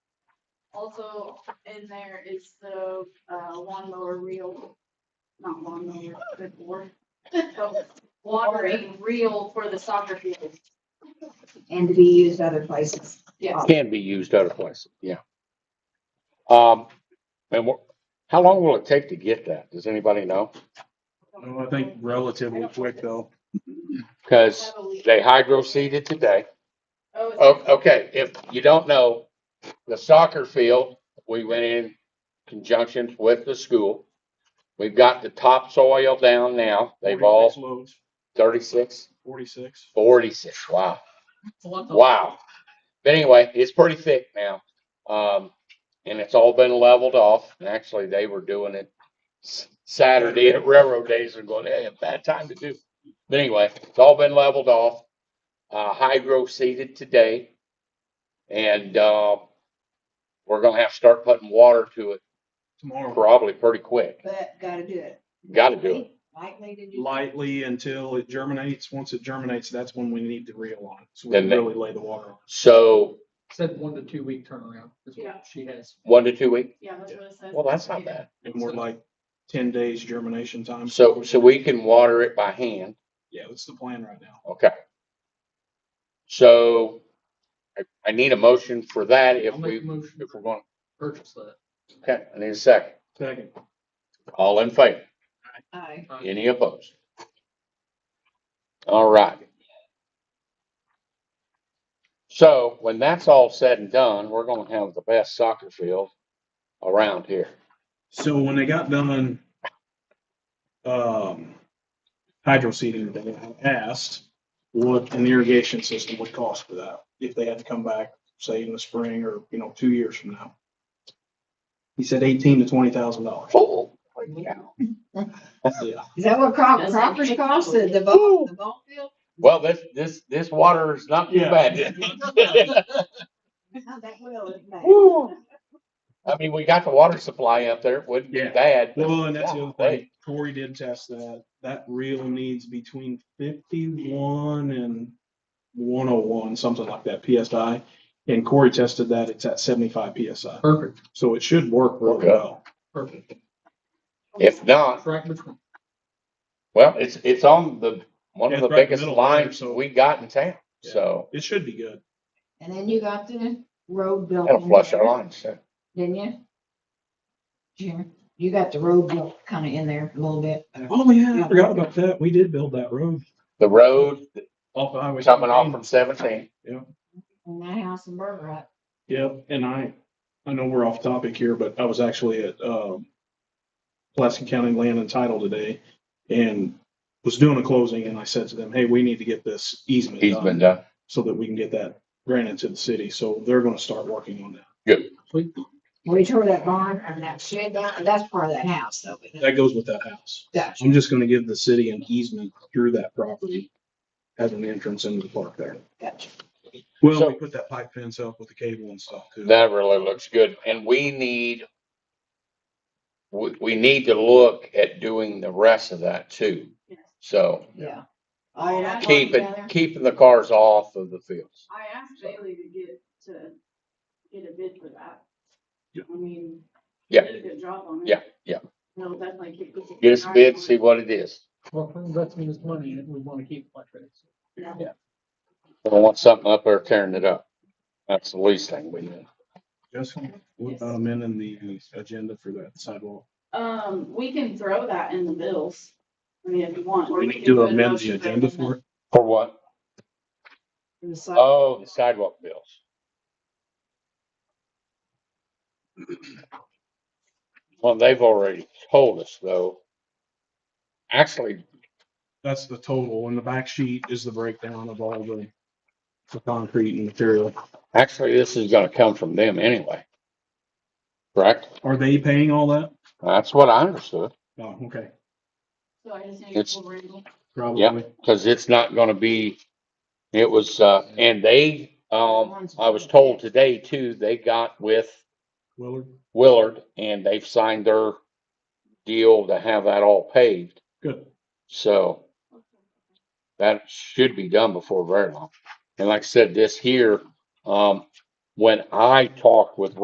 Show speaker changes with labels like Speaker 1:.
Speaker 1: Also in there is the uh, lawnmower reel, not lawnmower, good board. The Watering reel for the soccer field.
Speaker 2: and to be used other places.
Speaker 1: Yes.
Speaker 3: can be used other places, yeah. Um, and wha- how long will it take to get that? Does anybody know?
Speaker 4: Well, Oh, I think relatively quick though.
Speaker 3: Because
Speaker 1: Heavily.
Speaker 3: they hydro seeded today.
Speaker 1: Oh, it's-
Speaker 3: O- Okay, if you don't know, the soccer field, we went in conjunction with the school. We've got the topsoil down now. They've
Speaker 4: 46
Speaker 3: all
Speaker 4: Loads,
Speaker 3: 36,
Speaker 4: forty-six.
Speaker 3: 46. Wow. Wow. But anyway, it's pretty thick now. Um, and it's all been leveled off. And actually, they were doing it s- Saturday at railroad days and going, hey, a bad time to do. But anyway, it's all been leveled off. Uh, hydro seeded today. And, uh, we're gonna have to start putting water to it
Speaker 4: Tomorrow,
Speaker 3: probably pretty quick.
Speaker 2: But gotta do it.
Speaker 3: Gotta do it.
Speaker 2: Lightly to do.
Speaker 4: lightly until it germinates. Once it germinates, that's when we need the reel on. So we
Speaker 3: Then they-
Speaker 4: really lay the water on.
Speaker 3: So
Speaker 5: Said one to two week turnaround is
Speaker 1: Yeah.
Speaker 5: what she has.
Speaker 3: one to two weeks.
Speaker 1: Yeah, that's what it says.
Speaker 3: Well, that's not bad.
Speaker 4: And we're like ten days germination time.
Speaker 3: So, so we can water it by hand.
Speaker 4: Yeah, that's the plan right now.
Speaker 3: Okay. So I, I need a motion for that if
Speaker 5: I'll
Speaker 3: we,
Speaker 5: make a motion to
Speaker 3: if we're going,
Speaker 5: purchase that.
Speaker 3: okay, I need a second.
Speaker 4: Second.
Speaker 3: All in favor?
Speaker 2: Aye.
Speaker 5: Uh,
Speaker 3: Any opposed? All right. So when that's all said and done, we're gonna have the best soccer field around here.
Speaker 4: So when they got done, um, hydro seeding, they asked what an irrigation system would cost for that, if they had to come back, say in the spring or, you know, two years from now. He said eighteen to twenty thousand dollars.
Speaker 3: Oh, yeah.
Speaker 4: Yeah.
Speaker 2: Is that what crop,
Speaker 1: That's
Speaker 2: croppers
Speaker 1: okay.
Speaker 2: cost, the, the ball, the ball field?
Speaker 3: Well, this, this, this water is not too
Speaker 4: Yeah.
Speaker 3: bad.
Speaker 2: How that will, it may.
Speaker 3: I mean, we got the water supply up there. It wouldn't be
Speaker 4: Yeah.
Speaker 3: bad. but-
Speaker 4: Well, and that's the other
Speaker 3: Yeah,
Speaker 4: thing. Corey did test that. That reel needs between fifty-one and one oh one, something like that PSI. And Corey tested that. It's at seventy-five PSI.
Speaker 5: Perfect,
Speaker 4: So it should work really
Speaker 3: Okay.
Speaker 4: well.
Speaker 5: perfect.
Speaker 3: If not,
Speaker 5: Track between.
Speaker 3: Well, it's, it's on the, one
Speaker 4: Yeah,
Speaker 3: of the
Speaker 4: it's right in the
Speaker 3: biggest
Speaker 4: middle there,
Speaker 3: lines
Speaker 4: so-
Speaker 3: we got in town,
Speaker 4: Yeah.
Speaker 3: so
Speaker 4: It should be good.
Speaker 2: And then you got the road built.
Speaker 3: that'll
Speaker 2: in
Speaker 3: flush
Speaker 2: there,
Speaker 3: our lines, so.
Speaker 2: Didn't you? Jim, you got the road built kinda in there a little bit.
Speaker 4: Oh yeah, I forgot about that. We did build that road.
Speaker 3: The road
Speaker 4: Off Highway.
Speaker 3: coming off from seventeen,
Speaker 2: And that house in Burger Rock.
Speaker 4: Yep, and I, I know we're off topic here, but I was actually at, um, Plaskin County Land and Title today and was doing a closing and I said to them, hey, we need to get this easement
Speaker 3: he's been
Speaker 4: done
Speaker 3: done.
Speaker 4: so that we can get that granted to the city. So they're gonna start working on that.
Speaker 2: We tore that barn and that shed down, and that's part of that house, though. but
Speaker 4: That goes with that house.
Speaker 2: Gotcha.
Speaker 4: I'm just gonna give the city an easement through that property as an entrance into the park there.
Speaker 2: Gotcha.
Speaker 4: Well, we
Speaker 3: So-
Speaker 4: put that pipe fence up with the cable and stuff too.
Speaker 3: That really looks good, and we need, we, we need to look at doing the rest of that too.
Speaker 1: Yes.
Speaker 3: So
Speaker 2: Yeah. All right, I talked
Speaker 3: keep
Speaker 2: down there.
Speaker 3: it keeping the cars off of the fields.
Speaker 1: I asked Bailey to get, to get a bid for that.
Speaker 4: Yeah.
Speaker 1: I mean. he
Speaker 3: Yeah.
Speaker 1: Did a good job on it.
Speaker 3: Yeah, yeah.
Speaker 1: He'll definitely keep. this-
Speaker 3: Get us a bid, see what it is.
Speaker 5: Well, we're investing this money and we want to keep it like this.
Speaker 3: I don't want something up there tearing it up. That's the least thing we need.
Speaker 4: Justin, what about amending the agenda for that sidewalk?
Speaker 1: Um, we can throw that in the bills. I mean, if you want. or
Speaker 4: We
Speaker 1: can
Speaker 4: need to
Speaker 1: put a
Speaker 4: amend the
Speaker 1: motion
Speaker 4: agenda for it.
Speaker 3: For what?
Speaker 2: And the side-
Speaker 3: Oh, the sidewalk bills. Well, they've already told us though. Actually,
Speaker 4: That's the total, and the back sheet is the breakdown of all the, the concrete and material.
Speaker 3: actually, this is gonna come from them anyway. Correct?
Speaker 4: Are they paying all that?
Speaker 3: That's what I understood,
Speaker 4: Oh, okay,
Speaker 1: So I just need
Speaker 3: It's-
Speaker 1: to Randall.
Speaker 4: probably.
Speaker 3: cause it's not gonna be, it was, uh, and they, um, I was told today too, they got with
Speaker 4: Willard,
Speaker 3: Willard and they've signed their deal to have that all paved,
Speaker 4: good.
Speaker 3: so. that should be done before very long. And like I said, this here, um, when I talked with